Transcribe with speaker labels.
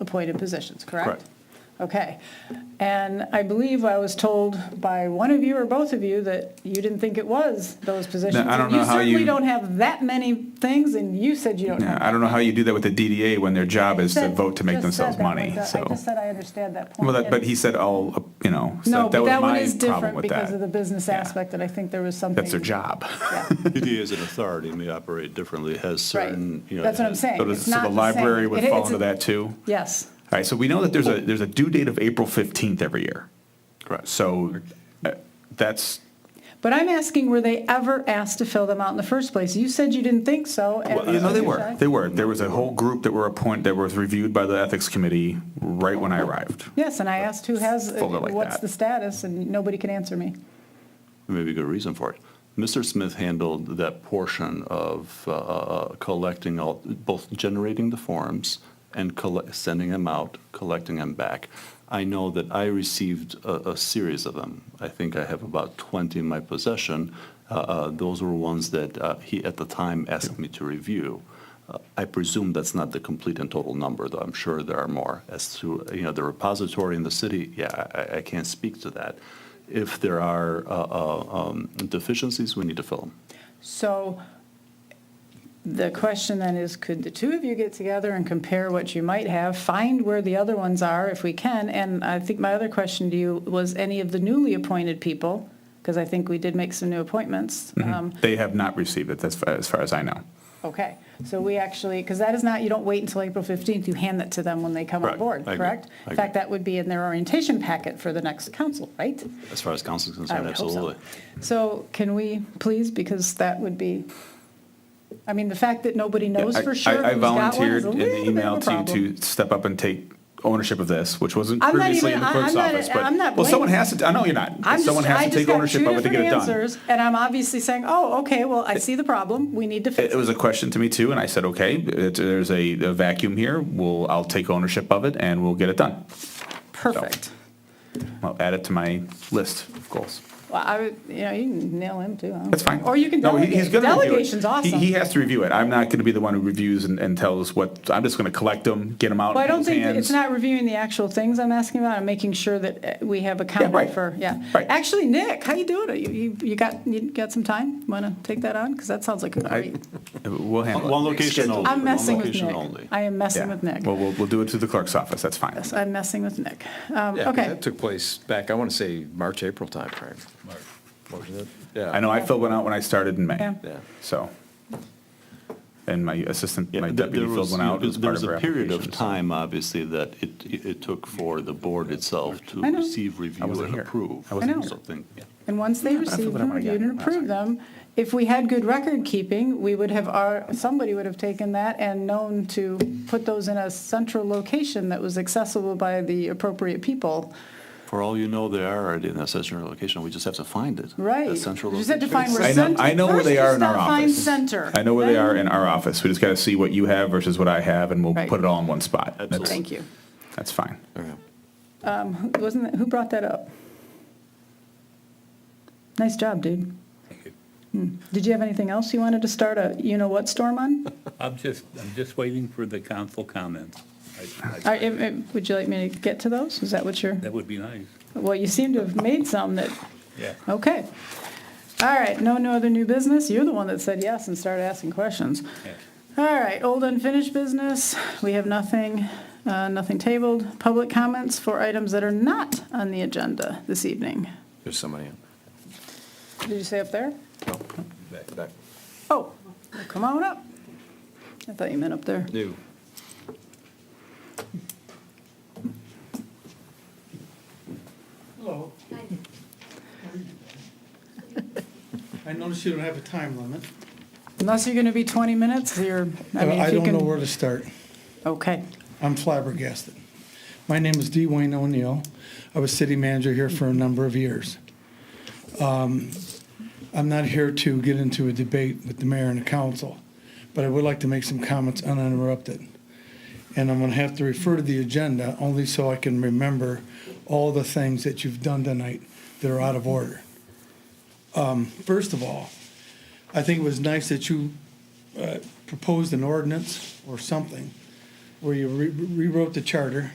Speaker 1: appointed positions, correct?
Speaker 2: Correct.
Speaker 1: Okay. And I believe I was told by one of you or both of you that you didn't think it was those positions.
Speaker 2: I don't
Speaker 1: And
Speaker 2: know how
Speaker 1: certainly
Speaker 2: you-
Speaker 1: don't have that many things, and you said you don't
Speaker 2: Yeah,
Speaker 1: have.
Speaker 2: I don't know how you do that with the DDA when their job is to
Speaker 1: Said-
Speaker 2: vote to make
Speaker 1: just said
Speaker 2: themselves
Speaker 1: that,
Speaker 2: money,
Speaker 1: like, uh, I
Speaker 2: so.
Speaker 1: just said I understand that point.
Speaker 2: Well, that- but he said all, uh, you know,
Speaker 1: No,
Speaker 2: so that
Speaker 1: but
Speaker 2: was
Speaker 1: that one
Speaker 2: my
Speaker 1: is
Speaker 2: problem
Speaker 1: different
Speaker 2: with
Speaker 1: because of the
Speaker 2: that.
Speaker 1: business
Speaker 2: Yeah.
Speaker 1: aspect, and I think there was something.
Speaker 2: That's their job.
Speaker 1: Yeah.
Speaker 3: PD as an authority may operate differently, has
Speaker 1: Right.
Speaker 3: certain, you know.
Speaker 1: That's what I'm
Speaker 3: has-
Speaker 1: saying.
Speaker 2: So does-
Speaker 1: It's
Speaker 2: so
Speaker 1: not
Speaker 2: the
Speaker 1: same.
Speaker 2: library would
Speaker 1: It-
Speaker 2: fall
Speaker 1: it's a-
Speaker 2: into that too?
Speaker 1: Yes.
Speaker 2: All right, so we know that there's a, there's a due date of April 15th every year.
Speaker 3: Correct.
Speaker 2: So uh, that's,
Speaker 1: But I'm asking, were they ever asked to fill them out in the first place? You said you didn't think so. and-
Speaker 2: well, you know, they were, they were. There was a whole group that were appointed, that was reviewed by the Ethics Committee right when I arrived.
Speaker 1: Yes, and I asked who has, uh,
Speaker 2: Fold it like
Speaker 1: what's
Speaker 2: that.
Speaker 1: the status, and nobody can answer me.
Speaker 3: Maybe a good reason for it. Mr. Smith handled that portion of uh, uh, collecting all, both generating the forms and collect, sending them out, collecting them back. I know that I received a, a series of them. I think I have about 20 in my possession. Uh, uh, Those were ones that uh, he, at the time, asked me to review. Uh, I presume that's not the complete and total number, though I'm sure there are more. As to, you know, the repository in the city, yeah, I- I, I can't speak to that. If there are uh, uh, um, deficiencies, we need to fill them.
Speaker 1: So the question then is, could the two of you get together and compare what you might have, find where the other ones are if we can? And I think my other question to you was any of the newly appointed people, because I think we did make some new appointments.
Speaker 3: Mm-hmm.
Speaker 1: um,
Speaker 2: They have not received it, that's, fa- as far as I know.
Speaker 1: Okay, so we actually, because that is not, you don't wait until April 15th, you hand that to them when they come on
Speaker 3: Correct.
Speaker 1: board,
Speaker 3: I agree.
Speaker 1: correct?
Speaker 3: I
Speaker 1: In fact,
Speaker 3: agree.
Speaker 1: that would be in their orientation packet for the next council, right?
Speaker 3: As far as council is
Speaker 1: I
Speaker 3: concerned,
Speaker 1: would hope
Speaker 3: absolutely.
Speaker 1: so. So can we please, because that would be, I mean, the fact that nobody knows
Speaker 2: I-
Speaker 1: for sure
Speaker 2: I I
Speaker 1: who's got one
Speaker 2: volunteered
Speaker 1: is a
Speaker 2: in
Speaker 1: little
Speaker 2: the
Speaker 1: bit
Speaker 2: email
Speaker 1: of a
Speaker 2: to you
Speaker 1: problem.
Speaker 2: to step up and take ownership of this, which wasn't
Speaker 1: I'm not
Speaker 2: previously
Speaker 1: even-
Speaker 2: in the
Speaker 1: I-
Speaker 2: clerk's
Speaker 1: I'm not-
Speaker 2: office, but.
Speaker 1: I'm not
Speaker 2: Well, someone
Speaker 1: blaming-
Speaker 2: has to, I know you're not, but
Speaker 1: I'm just-
Speaker 2: someone
Speaker 1: I
Speaker 2: has to
Speaker 1: just
Speaker 2: take
Speaker 1: got
Speaker 2: ownership
Speaker 1: two
Speaker 2: of it to get
Speaker 1: different
Speaker 2: it done.
Speaker 1: answers, And I'm obviously saying, oh, okay, well, I see the problem, we need to
Speaker 2: It
Speaker 1: fix
Speaker 2: it was
Speaker 1: it.
Speaker 2: a question to me too, and I said, okay, it- there's a a vacuum here, we'll, I'll take ownership of it and we'll get it done.
Speaker 1: Perfect.
Speaker 2: I'll add it to my list of goals.
Speaker 1: Well, I would, you know, you can nail him too. I don't
Speaker 2: That's
Speaker 1: care.
Speaker 2: fine.
Speaker 1: Or you can
Speaker 2: No, he- he's
Speaker 1: delegate.
Speaker 2: gonna review it.
Speaker 1: Delegation's
Speaker 2: He-
Speaker 1: awesome.
Speaker 2: He has to review it. I'm not going to be the one who reviews and, and tells what, I'm just going to collect them, get them out
Speaker 1: Well, I
Speaker 2: in
Speaker 1: don't
Speaker 2: his
Speaker 1: think, that- it's
Speaker 2: hands.
Speaker 1: not reviewing the actual things I'm asking about, I'm making sure that uh, we have a comment
Speaker 2: right.
Speaker 1: for, yeah.
Speaker 2: Right.
Speaker 1: Actually, Nick, how you doing? You- You, you got, you got some time? Want to take that on? Because that sounds like a
Speaker 2: I-
Speaker 1: great,
Speaker 2: We'll handle it.
Speaker 3: One location only.
Speaker 1: I'm
Speaker 3: one
Speaker 1: messing with
Speaker 3: location only.
Speaker 1: Nick. I am
Speaker 2: Yeah.
Speaker 1: messing with Nick.
Speaker 2: Well, we'll, we'll do it through the clerk's office, that's fine.
Speaker 1: Yes, I'm messing with Nick. Um,
Speaker 4: Yeah, 'cause
Speaker 1: Okay,
Speaker 4: That took place back, I want to say, March, April timeframe. March.
Speaker 2: I
Speaker 4: Yeah,
Speaker 2: know I filled one out when I started in May,
Speaker 1: Yeah.
Speaker 4: yeah.
Speaker 2: so. And my assistant,
Speaker 3: Yeah,
Speaker 2: my
Speaker 3: th-
Speaker 2: deputy
Speaker 3: there
Speaker 2: filled
Speaker 3: was-
Speaker 2: one
Speaker 3: you know,
Speaker 2: out as
Speaker 3: there-
Speaker 2: part of her
Speaker 3: There was a period of
Speaker 2: application. so-
Speaker 3: time, obviously, that it, it it took for the board itself to
Speaker 1: I know.
Speaker 3: receive, review,
Speaker 2: wasn't
Speaker 3: and
Speaker 2: here.
Speaker 3: approve.
Speaker 2: I
Speaker 1: wasn't I know. here.
Speaker 3: Something, yeah.
Speaker 1: and once they
Speaker 2: feel
Speaker 1: received
Speaker 2: that I
Speaker 1: them,
Speaker 2: wanna get
Speaker 1: reviewed and
Speaker 2: it.
Speaker 1: approved them, if we had good record keeping, we would have, our somebody would have taken that and known to put those in a central location that was accessible by the appropriate people.
Speaker 3: For all you know, they are already in a central location, we just have to find it.
Speaker 1: Right.
Speaker 3: That central
Speaker 1: You just have to
Speaker 3: location.
Speaker 1: find where
Speaker 2: I know, I know where
Speaker 1: First
Speaker 2: they
Speaker 1: you
Speaker 2: are in our
Speaker 1: gotta find
Speaker 2: office.
Speaker 1: center.
Speaker 2: I know where they
Speaker 1: Then-
Speaker 2: are in our office. We just got to see what you have versus what I have, and we'll
Speaker 1: Right.
Speaker 2: put it all in one spot.
Speaker 3: Absolutely.
Speaker 2: That's-
Speaker 1: Thank you.
Speaker 2: That's fine.
Speaker 1: Who- Wasn't, that- who brought that up? Nice job, dude. Hmm. Did you have anything else you wanted to start a you-know-what storm on?
Speaker 5: I'm just, I'm just waiting for the council comments. I-
Speaker 1: Are-
Speaker 5: I-
Speaker 1: if- if- Would you like me to get to those? Is that what you're,
Speaker 5: That would be nice,
Speaker 1: well, you seem to have made some that,
Speaker 5: yeah.
Speaker 1: okay. All right, no, no other new business? You're the one that said yes and started asking questions.
Speaker 5: Yeah.
Speaker 1: All right, old unfinished business, we have nothing, uh, nothing tabled. Public comments for items that are not on the agenda this evening.
Speaker 4: There's somebody in.
Speaker 1: Did you say up there?
Speaker 4: No, back, back.
Speaker 1: Oh, well, come on up. I thought you meant up there.
Speaker 4: New.
Speaker 6: Hello. I notice you don't have a time limit.
Speaker 1: Unless you're going to be 20 minutes, you're, I mean,
Speaker 6: Uh, I
Speaker 1: if you
Speaker 6: don't know
Speaker 1: can.
Speaker 6: where to start.
Speaker 1: Okay,
Speaker 6: I'm flabbergasted. My name is Dwayne O'Neill. I was city manager here for a number of years. Um, I'm not here to get into a debate with the mayor and the council, but I would like to make some comments uninterrupted. And I'm going to have to refer to the agenda only so I can remember all the things that you've done tonight that are out of order. Um, First of all, I think it was nice that you uh, proposed an ordinance or something where you re- rewrote the charter